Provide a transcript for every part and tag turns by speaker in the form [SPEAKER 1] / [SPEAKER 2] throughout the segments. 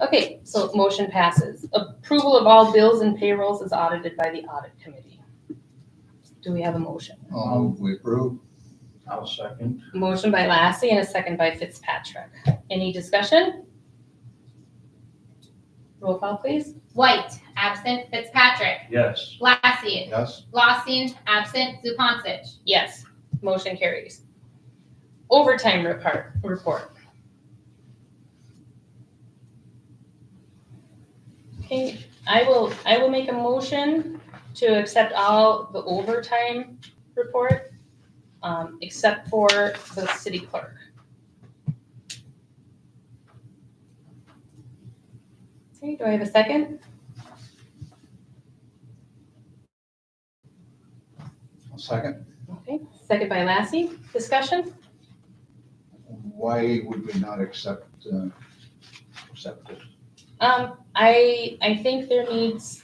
[SPEAKER 1] Okay, so motion passes. Approval of all bills and payrolls is audited by the audit committee. Do we have a motion?
[SPEAKER 2] I'll move we approve.
[SPEAKER 3] I'll second.
[SPEAKER 1] Motion by Lassie and a second by Fitzpatrick. Any discussion? Roll call, please.
[SPEAKER 4] White, absent. Fitzpatrick,
[SPEAKER 3] Yes.
[SPEAKER 4] Lassie,
[SPEAKER 2] Yes.
[SPEAKER 4] Lawson, absent. Zupansich.
[SPEAKER 1] Yes, motion carries. Overtime report, report. Okay, I will, I will make a motion to accept all the overtime report, um, except for the city clerk. Okay, do I have a second?
[SPEAKER 2] I'll second.
[SPEAKER 1] Okay, second by Lassie, discussion?
[SPEAKER 2] Why would we not accept, uh, accept it?
[SPEAKER 1] Um, I, I think there needs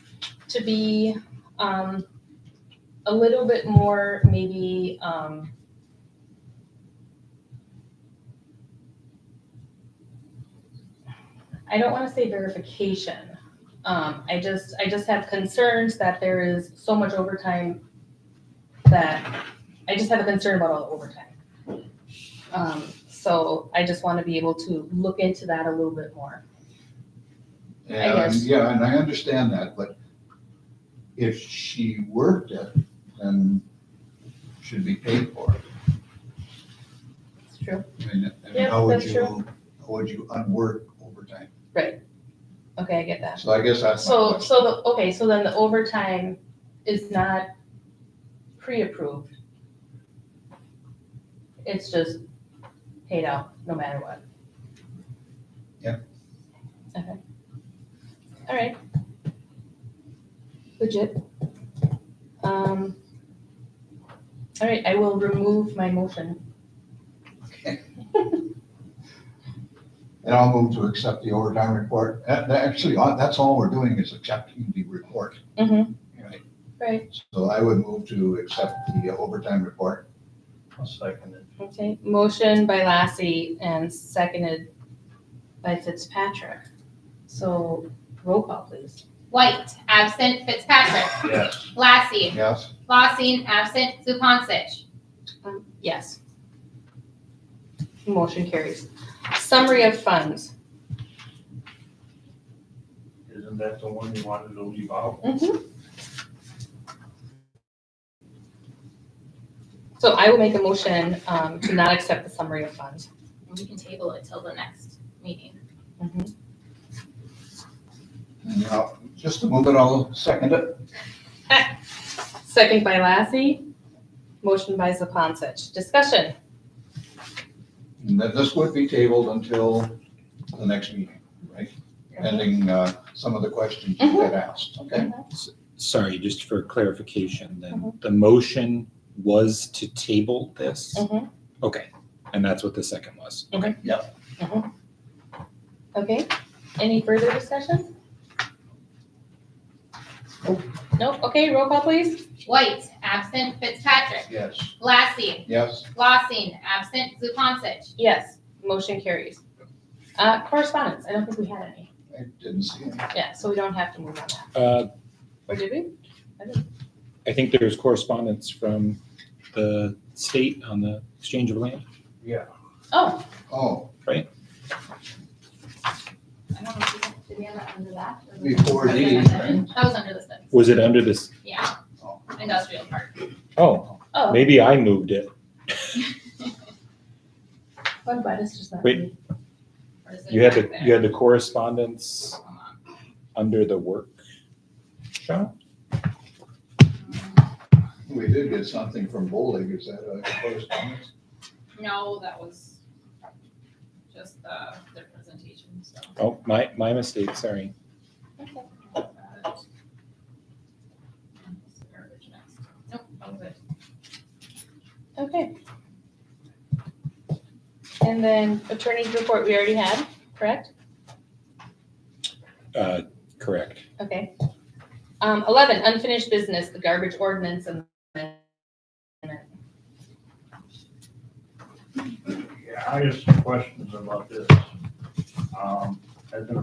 [SPEAKER 1] to be, um, a little bit more, maybe, um, I don't wanna say verification. Um, I just, I just have concerns that there is so much overtime that, I just have a concern about all the overtime. Um, so I just wanna be able to look into that a little bit more.
[SPEAKER 2] And,
[SPEAKER 1] guess.
[SPEAKER 2] yeah, and I understand that, but if she worked it, then should be paid for it.
[SPEAKER 1] It's true.
[SPEAKER 2] I mean, I mean,
[SPEAKER 1] Yeah,
[SPEAKER 2] how would
[SPEAKER 1] that's
[SPEAKER 2] you, how would you unwork overtime?
[SPEAKER 1] Okay, I get that.
[SPEAKER 2] So I guess that's my
[SPEAKER 1] So,
[SPEAKER 2] question.
[SPEAKER 1] so, the okay, so then the overtime is not pre-approved. It's just paid out no matter what.
[SPEAKER 2] Yeah.
[SPEAKER 1] Okay. All right. Legit. Um. All right, I will remove my motion.
[SPEAKER 2] Okay. And I'll move to accept the overtime report. That- that Actually, uh, that's all we're doing is accepting the report.
[SPEAKER 1] Mm-hmm.
[SPEAKER 2] Right.
[SPEAKER 1] Right,
[SPEAKER 2] So I would move to accept the uh, overtime report.
[SPEAKER 3] I'll second it.
[SPEAKER 1] okay. Motion by Lassie and seconded by Fitzpatrick. So roll call, please.
[SPEAKER 4] White, absent. Fitzpatrick,
[SPEAKER 3] Yes.
[SPEAKER 4] Lassie,
[SPEAKER 2] Yes?
[SPEAKER 4] Lawson, absent. Zupansich.
[SPEAKER 1] Um, Yes. Motion carries. Summary of funds.
[SPEAKER 3] Isn't that the one you wanted to leave out?
[SPEAKER 1] Mm-hmm. So I will make a motion um, to not accept the summary of funds.
[SPEAKER 4] We can table it till the next meeting.
[SPEAKER 2] And I'll- Just a moment, I'll second it.
[SPEAKER 1] Second by Lassie, motion by Sapansich. Discussion.
[SPEAKER 2] And then this would be tabled until the next meeting, right? Pending uh, some of the questions you had asked, okay?
[SPEAKER 5] Sorry, just for clarification, then, the motion was to table this?
[SPEAKER 1] Mhm.
[SPEAKER 5] Okay, and that's what the second was.
[SPEAKER 1] Okay, any further discussion? Nope, okay, roll call please.
[SPEAKER 4] White, absent. Fitzpatrick,
[SPEAKER 2] Yes.
[SPEAKER 4] Lassie,
[SPEAKER 2] Yes,
[SPEAKER 4] Lawson, absent. Zupansich.
[SPEAKER 1] Yes, motion carries. Uh, Correspondence, I don't think we had any.
[SPEAKER 2] I didn't see it.
[SPEAKER 1] Yeah, so we don't have to move on that.
[SPEAKER 5] Uh,
[SPEAKER 1] Or Oh, did we?
[SPEAKER 5] I think there's correspondence from the state on the exchange of land.
[SPEAKER 3] Yeah.
[SPEAKER 1] Oh,
[SPEAKER 2] Oh,
[SPEAKER 4] I don't know if we can- Did we have that under that? Or was it-
[SPEAKER 2] before
[SPEAKER 4] That was
[SPEAKER 2] these,
[SPEAKER 4] under
[SPEAKER 2] right?
[SPEAKER 4] the- that was under the sentence.
[SPEAKER 5] Was it under this?
[SPEAKER 4] Yeah,
[SPEAKER 2] Oh.
[SPEAKER 4] industrial park.
[SPEAKER 5] Oh,
[SPEAKER 1] oh,
[SPEAKER 5] maybe I moved it.
[SPEAKER 1] one by this Oh, just not.
[SPEAKER 5] Wait.
[SPEAKER 1] me.
[SPEAKER 4] Or is it
[SPEAKER 5] You had
[SPEAKER 4] back
[SPEAKER 5] the,
[SPEAKER 4] there?
[SPEAKER 5] you had the correspondence under the workshop?
[SPEAKER 2] We did get something from Bowleg, is that a correspondence?
[SPEAKER 4] No, that was just the, their presentation, so.
[SPEAKER 5] Oh, my, my mistake, sorry.
[SPEAKER 4] Nope, all good.
[SPEAKER 1] Okay. And then attorney's report we already had, correct?
[SPEAKER 5] Uh, correct.
[SPEAKER 1] Okay. Um, eleven, unfinished business, the garbage ordinance amendment.
[SPEAKER 3] Yeah, I have some questions about this. Um, As an